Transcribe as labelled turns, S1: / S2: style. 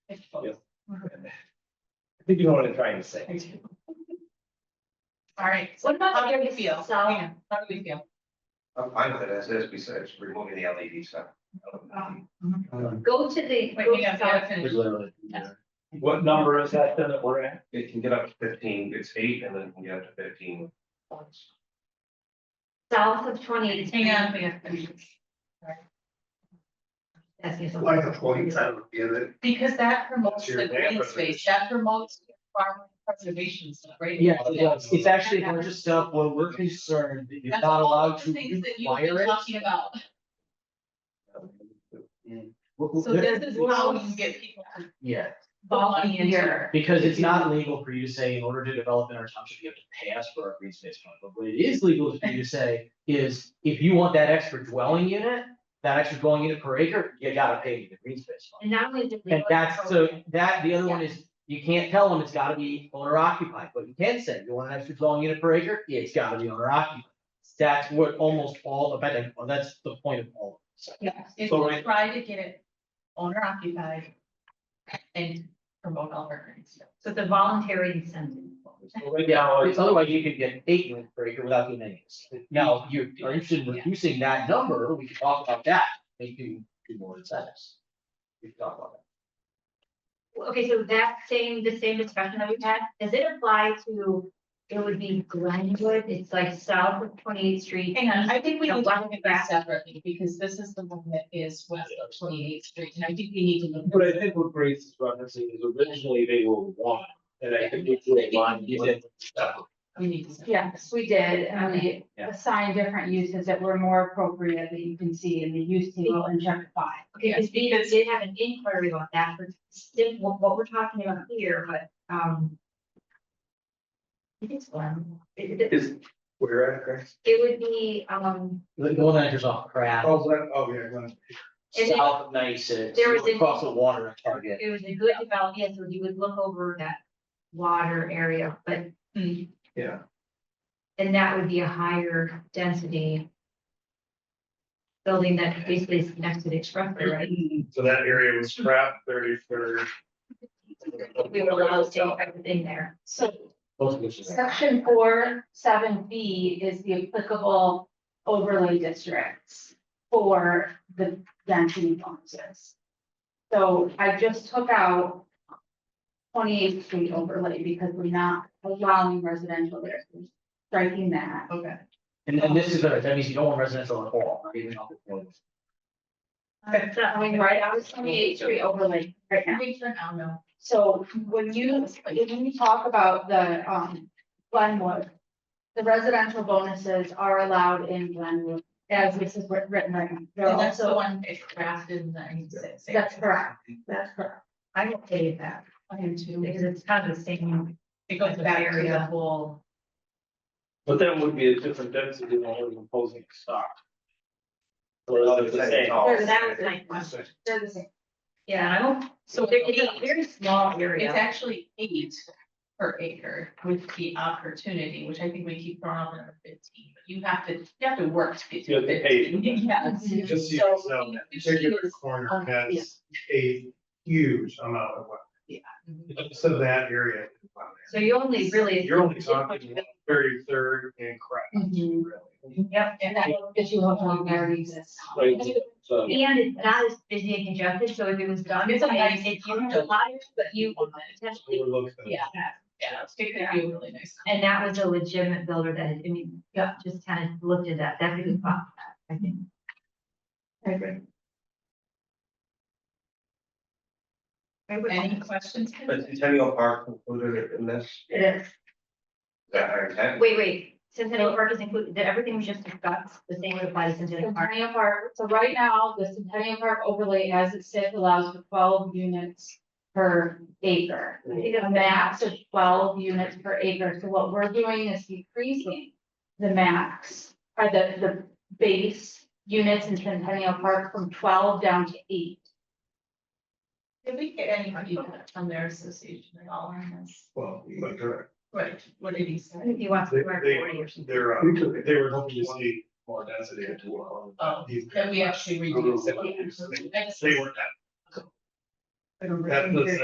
S1: I think you know what I'm trying to say.
S2: All right.
S3: What about
S2: How
S3: the
S2: do we feel?
S3: south?
S2: Hang on, How do we feel?
S4: I'm fine with it as is, besides removing the LED stuff.
S3: Go to the.
S2: Wait, we gotta, we gotta finish.
S1: What number is that then that we're at?
S4: It can get up to fifteen, it's eight, and then it can get up to fifteen. points.
S3: South of twenty.
S2: Hang on, we gotta finish.
S3: That's just-
S5: Like a point, I don't get it.
S2: Because that promotes
S5: Your
S2: the green
S5: neighborhood.
S2: space, that promotes farm preservation stuff, right?
S6: Yeah, it does. it's actually a bunch of stuff where we're concerned that you're
S2: That's
S6: not
S2: all
S6: allowed
S2: the
S6: to
S2: Things that you've
S6: require
S2: been
S6: it.
S2: talking about.
S6: We're- we're-
S2: So this is how you get people to
S6: Yeah,
S2: volunteer.
S6: because it's not legal for you to say, in order to develop in our township, you have to pay us for our green space fund. But what it is legal for you to say is, if you want that extra dwelling unit, that extra dwelling unit per acre, you gotta pay the green space fund.
S3: And not only did. we
S6: And
S3: look
S6: that's,
S3: for-
S6: so that, the other one is, you can't tell them it's gotta be owner occupied, but you can say, you want an extra dwelling unit per acre, Yeah, it's gotta be owner occupied. That's what almost all, I bet, well, that's the point of all of this.
S2: Yeah, if
S1: So
S2: we
S1: we-
S2: try to get it owner occupied and promote all of our green stuff.
S3: So the voluntary incentive.
S1: So Right
S6: Yeah,
S1: now,
S6: because
S1: it's-
S6: otherwise you could get eight units per acre without doing any of this. Now, if you are interested in
S2: Yeah.
S6: reducing that number, we can talk about that, make you do more incentives. We can talk about
S3: Okay, so that same, the same discussion that we've had, does it apply to, it would be Glenwood, it's like south of twenty eighth street?
S2: Hang on, I think we
S3: Yeah,
S2: need to
S3: why
S2: look at
S3: don't we
S2: that separately, because this is the one that is west of twenty eighth street, and I think we need to look.
S1: but I think what Grace is referencing is originally they were one, and I think we drew a line.
S6: You did.
S2: We need to.
S7: Yes, we did, and we
S6: Yeah.
S7: assigned different uses that were more appropriate that you can see in the use table and check five.
S3: Okay, because we did have an inquiry about that, but still, what, what we're talking about here, but, um. I think It's one, it, it-
S5: Is, where at, Chris?
S3: it would be, um,
S6: The the one that enters off crap,
S5: Oh, that, oh, yeah, Glen.
S3: And then-
S6: south of ninety six,
S3: There was an-
S6: across the water at Target.
S3: it was a good development, yes, so you would look over that water area, but,
S2: Hmm,
S5: yeah.
S3: and that would be a higher density. Building that basically is next to the expressway, right?
S1: So that area was scrapped thirty third.
S3: We were allowed to take everything there.
S7: So
S6: Both of which is.
S7: section four, seven B is the applicable overlay districts for the density bonuses. So I just took out twenty eighth street overlay because we're not allowing residential there, so striking that.
S2: okay.
S6: And then this is, better. that means you don't want residential at all, not even off the point.
S7: It's not going right out of twenty eighth street overlay right now.
S2: We turn out now.
S7: So when you, when you talk about the, um, Glenwood, the residential bonuses are allowed in Glenwood, as this is writ- written right now. They're
S2: And that's the
S7: also-
S2: one that drafted in ninety-six.
S7: That's correct, that's correct.
S3: I will tell you that,
S2: Plan two.
S3: because it's kind of the same,
S2: It goes back to the whole.
S1: But that would be a different density than what we're proposing to start. Or is it the same?
S3: Sure, that was my question.
S7: They're the same.
S3: yeah, I don't,
S2: So
S3: it's a very small
S2: It's
S3: area.
S2: actually eight per acre with the opportunity, which I think we keep throwing out number fifteen, but you have to, you have to work to get to
S1: You have to pay.
S2: fifteen. Yes.
S5: Just so you
S2: So,
S5: know, that
S2: you see
S5: particular
S2: this-
S5: corner
S2: um,
S5: has a huge amount of what, just of that area. is on
S3: So you only really.
S5: there. You're only talking very third and crap,
S2: Mhm.
S5: really.
S3: Mm-hmm. Yep,
S2: And that
S7: If you have one there, you exist.
S1: Right, so-
S3: and it's not as busy and congested, so if it was done,
S2: It's
S3: it's
S2: a
S3: a
S2: nice-
S3: it, you have a lot, but you potentially,
S5: Overlook them.
S2: Yeah, yeah, it's taken out really nice.
S3: and that was a legitimate builder that, I mean,
S2: Yeah.
S3: just kind of looked at that, that's a good thought, I think. I agree. I would-
S2: Any questions?
S4: But Centennial Park included in this, is
S3: It is.
S4: that our intent?
S3: Wait, wait, Centennial Park is included, that everything we just discussed, the same would apply to Centennial Park.
S7: Centennial Park, so right now, the Centennial Park overlay as it sits allows for twelve units per acre.
S3: I think that's-
S7: a max of twelve units per acre, so what we're doing is decreasing the max, or the, the base units in Centennial Park from twelve down to eight.
S2: Did we get any feedback from their association at all on this?
S5: Well, but they're,
S2: Right, what did he
S3: I
S2: say?
S3: think he wants
S5: they,
S3: to wear forty or
S5: they,
S3: something.
S5: they're, uh, they were hoping to see more density at twelve.
S2: Oh,
S5: These-
S2: that we actually reduced.
S5: They weren't that, that's the